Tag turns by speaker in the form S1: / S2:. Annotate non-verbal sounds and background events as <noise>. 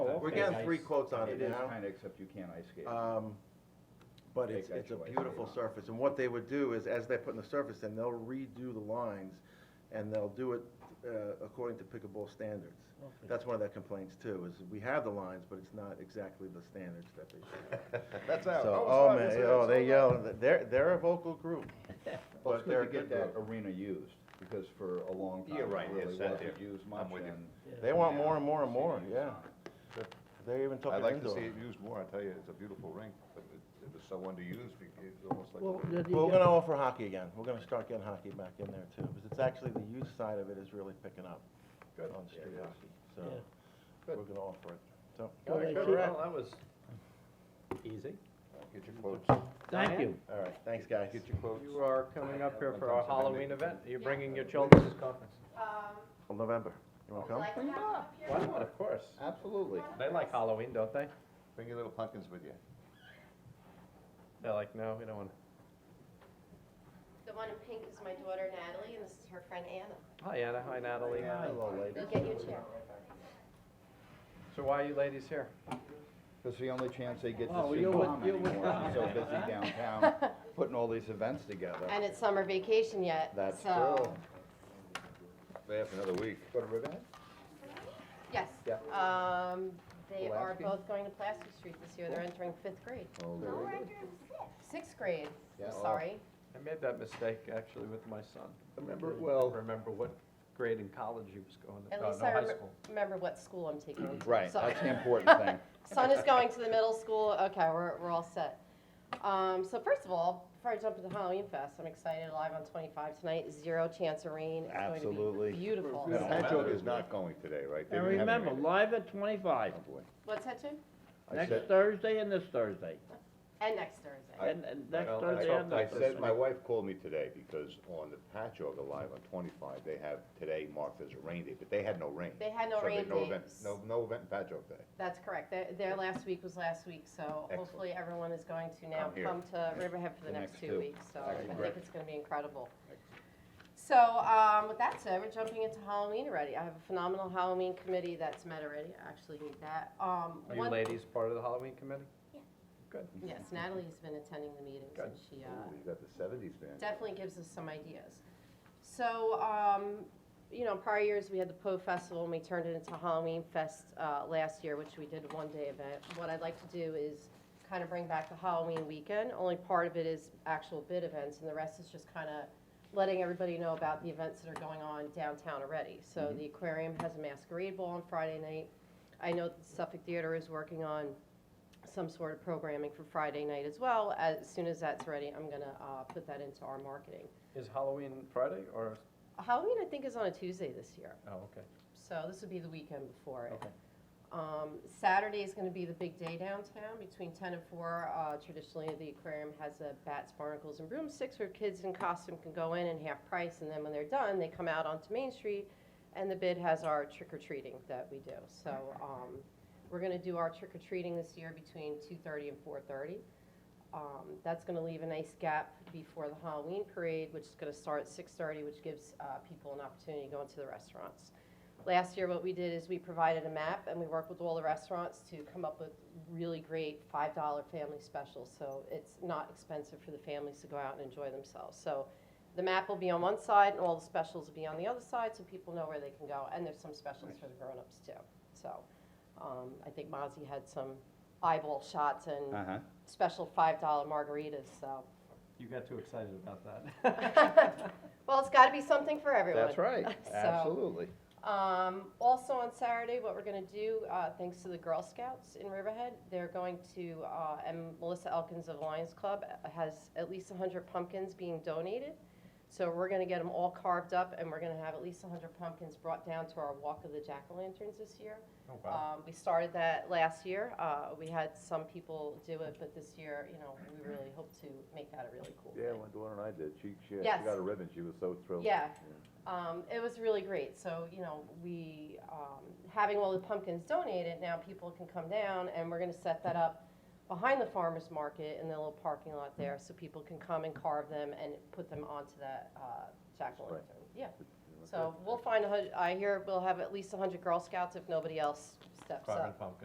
S1: We're getting three quotes on
S2: Oh,
S1: it
S2: It Uh, is
S1: now.
S2: kinda, except you can't ice skate.
S1: Um, But it's,
S2: Take that
S1: it's a
S2: choice.
S1: beautiful surface, and what they would do is, as they're putting the surface in, they'll redo the lines, and they'll do it uh, according to pickleball standards. That's one of their complaints too, is we have the lines, but it's not exactly the standards that they should.
S3: That's out.
S1: So, oh man, oh, they yell, they're, they're a vocal group,
S2: Well, it's
S1: but they're
S2: good
S1: a
S2: to get
S1: good
S2: that
S1: group.
S2: arena used, because for a long time,
S3: You're
S2: it
S3: right,
S2: really
S3: it's sat
S2: wasn't
S3: there.
S2: used
S3: I'm
S2: much,
S3: with you.
S2: and
S1: They want more
S2: now
S1: and more
S2: you
S1: and
S2: see
S1: more,
S2: the use
S1: yeah.
S2: on it.
S1: They even took
S3: I'd
S1: it
S3: like to see
S1: indoor.
S3: it used more, I tell you, it's a beautiful rink, but it, it was so underused, we- it's almost like.
S4: Well,
S3: a-
S4: did you
S1: Well, We're
S4: get-
S1: gonna offer hockey again, we're gonna start getting hockey back in there too, because it's actually, the youth side of it is really picking up
S3: Good.
S1: on street
S3: Yeah,
S1: hockey, so
S4: Yeah.
S1: we're gonna offer it, so.
S4: All right,
S5: Well,
S4: so-
S5: that was easy.
S3: Get your quotes,
S4: Thank you.
S1: All right, thanks, guys.
S3: get your quotes.
S5: You are coming up here for our Halloween event. You're bringing your children.
S1: Well, November, you wanna come?
S5: Why not, of course.
S2: Absolutely.
S5: They like Halloween, don't they?
S3: Bring your little pumpkins with you.
S5: They're like, no, we don't want
S6: The one in pink is my daughter Natalie, and this is her friend Anna.
S5: to. Hi Anna, hi Natalie.
S6: You get your chair.
S5: So why are you ladies here?
S2: It's the only chance they get to
S4: Oh,
S2: see
S4: you're with-
S2: mom
S4: you're with
S2: anymore, she's so <laughs>
S4: Tom.
S2: busy downtown, putting all these events together.
S6: And it's summer vacation yet,
S2: That's
S6: so-
S2: true.
S3: They have another week.
S2: Go to Ribbon?
S6: Yes.
S2: Yeah.
S6: Um, they are
S2: Pulaski?
S6: both going to Plaster Street this year. They're entering fifth grade.
S2: Oh, there we go.
S6: Sixth grade,
S2: Yeah,
S6: I'm
S2: oh.
S6: sorry.
S5: I made that mistake actually with my son.
S2: Remember,
S5: Didn't
S2: well,
S5: Remember what grade in college he was going to,
S6: At
S5: no,
S6: least
S5: no,
S6: I
S5: high
S6: remem-
S5: school.
S6: remember what school I'm taking him
S2: <clears throat>
S6: to.
S2: right,
S6: So-
S2: that's the
S6: <laughs>
S2: important thing.
S6: Son is going to the middle school. Okay, we're, we're all set. Um, so first of all, before I jump into Halloween Fest, I'm excited. Live on 25 tonight, zero chance of rain. It's
S2: Absolutely.
S6: going to be beautiful.
S3: No, that joke is not going today, right? They
S4: And
S3: didn't have any
S4: remember,
S3: radio.
S4: live at twenty-five,
S3: Oh, boy.
S6: What's that, Jim?
S2: I said-
S4: next Thursday and this Thursday,
S6: And next Thursday.
S4: and, and next
S3: Well, I
S4: Thursday
S3: told-
S4: and
S3: I
S4: this
S3: said,
S4: Thursday.
S3: my wife called me today because on the patch over live on twenty-five, they have today marked as a rain day, but they had no rain.
S6: They had no
S3: So they-
S6: rain
S3: event-
S6: dates.
S3: No, no event in patch over day.
S6: That's correct. Their, their last week was last week, so
S3: Excellent.
S6: hopefully everyone is going to now
S3: Come here.
S6: come to Riverhead for the
S2: The
S6: next
S2: next two.
S6: two weeks. So I
S2: Alright,
S6: think
S2: great.
S6: it's gonna be incredible. So, um, with that said, we're jumping into Halloween already. I have a phenomenal Halloween committee that's met already. I actually need that. Um,
S5: Are you
S6: one-
S5: ladies part of the Halloween committee?
S6: Yes, Natalie's been attending the meetings and she, uh,
S3: Ooh, you got the seventies band.
S6: definitely gives us some ideas. So, um, you know, prior years, we had the Poe Festival, and we turned it into Halloween Fest, uh, last year, which we did a one-day event. What I'd like to do is kind of bring back the Halloween weekend, only part of it is actual bid events, and the rest is just kind of letting everybody know about the events that are going on downtown already. So the aquarium has a masquerade ball on Friday night. I know the Suffolk Theater is working on some sort of programming for Friday night as well. As soon as that's ready, I'm gonna, uh, put that into our marketing.
S5: Is Halloween Friday or,
S6: Halloween, I think, is on a Tuesday this year,
S5: oh, okay.
S6: so this would be the weekend before it.
S5: Okay.
S6: Um, Saturday is gonna be the big day downtown, between ten and four, uh, traditionally, the aquarium has a bats, barnacles, and broomsticks where kids in costume can go in and half price, and then when they're done, they come out onto Main Street, and the bid has our trick or treating that we do, so, um, we're gonna do our trick or treating this year between two thirty and four thirty. Um, that's gonna leave a nice gap before the Halloween parade, which is gonna start at six thirty, which gives, uh, people an opportunity to go into the restaurants. Last year, what we did is we provided a map and we worked with all the restaurants to come up with really great five dollar family specials. So it's not expensive for the families to go out and enjoy themselves. So the map will be on one side and all the specials will be on the other side, so people know where they can go. And there's some specials for the grown-ups too. So, um, I think Mozzie had some eyeball shots and
S2: Uh-huh.
S6: special five dollar margaritas,
S2: <laughs>
S6: so.
S5: You got too excited about that.
S6: <laughs> Well, it's gotta be something for everyone.
S2: That's right,
S6: <laughs> So-
S2: absolutely.
S6: Um, also on Saturday, what we're gonna do, uh, thanks to the Girl Scouts in Riverhead, they're going to, uh, and Melissa Elkins of Lions Club uh, has at least hundred pumpkins being donated. So we're gonna get them all carved up and we're gonna have at least hundred pumpkins brought down to our Walk of the Jack-o'-lanterns this year.
S5: Oh, wow.
S6: Um, we started that last year. Uh, we had some people do it, but this year, you know, we really hope to make that a really cool
S3: Yeah,
S6: thing.
S3: my daughter and I did, she, she, she
S6: Yes.
S3: got a ribbon, she was so thrilled.
S6: Yeah. Um, it was really great. So, you know, we, um, having all the pumpkins donated, now people can come down and we're gonna set that up behind the farmer's market in the little parking lot there, so people can come and carve them and put them onto that, uh, jack-o'-lantern. Yeah. So we'll find a hun, I hear we'll have at least a hundred Girl Scouts if nobody else steps up.
S5: Carving pumpkin.